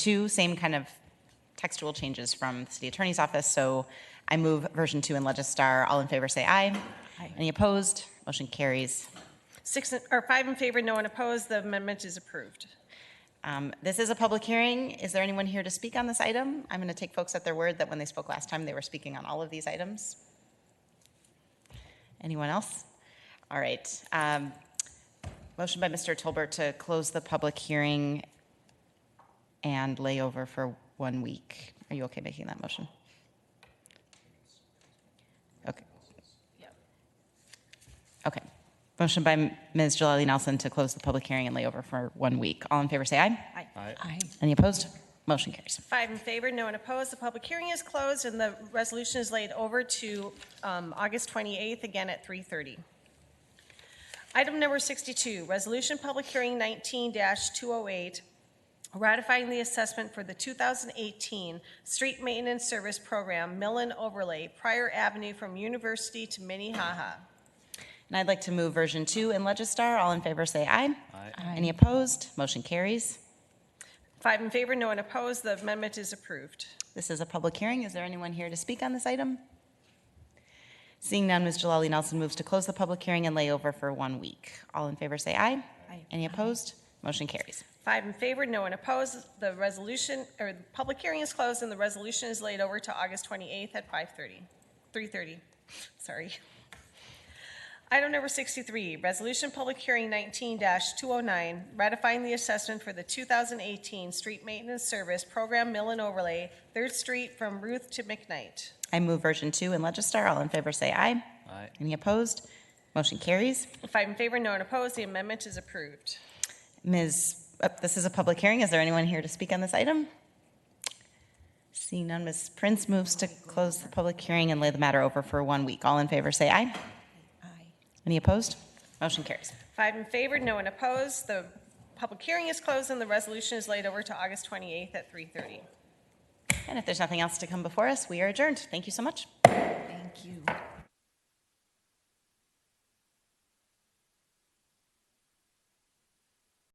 two same kind of textual changes from the city attorney's office. So I move version two in Legistar. All in favor, say aye. Any opposed? Motion carries. Six, in- or five in favor, no one opposed, the amendment is approved. Um, This is a public hearing. Is there anyone here to speak on this item? I'm going to take folks at their word that when they spoke last time, they were speaking on all of these items. Anyone else? All right. um, Motion by Mr. Tolbert to close the public hearing and lay over for one week. Are you okay making that motion? Okay. Okay. Motion by Ms. Jalali Nelson to close the public hearing and lay over for one week. All in favor, say aye. Aye. Any opposed? Motion carries. Five in favor, no one opposed, the public hearing is closed, and the resolution is laid over to um, August 28th, again at 3:30. Item number 62, Resolution Public Hearing 19-208, ratifying the assessment for the 2018 Street Maintenance Service Program Millen Overlay, Prior Avenue from University to Minnehaha. And I'd like to move version two in Legistar. All in favor, say aye. Any opposed? Motion carries. Five in favor, no one opposed, the amendment is approved. This is a public hearing. Is there anyone here to speak on this item? Seeing none, Ms. Jalali Nelson moves to close the public hearing and lay over for one week. All in favor, say aye. Aye. Any opposed? Motion carries. Five in favor, no one opposed. The resolution, or the public hearing is closed, and the resolution is laid over to August 28th at 5:30, 3:30, sorry. Item number 63, Resolution Public Hearing 19-209, ratifying the assessment for the 2018 Street Maintenance Service Program Mill and Overlay, Third Street from Ruth to McKnight. I move version two in Legistar. All in favor, say aye. Aye. Any opposed? Motion carries. Five in favor, no one opposed. The amendment is approved. Ms., uh, this is a public hearing. Is there anyone here to speak on this item? Seeing none, Ms. Prince moves to close the public hearing and lay the matter over for one week. All in favor, say aye. Any opposed? Motion carries. Five in favor, no one opposed. The public hearing is closed, and the resolution is laid over to August 28th at 3:30. And if there's nothing else to come before us, we are adjourned. Thank you so much. Thank you.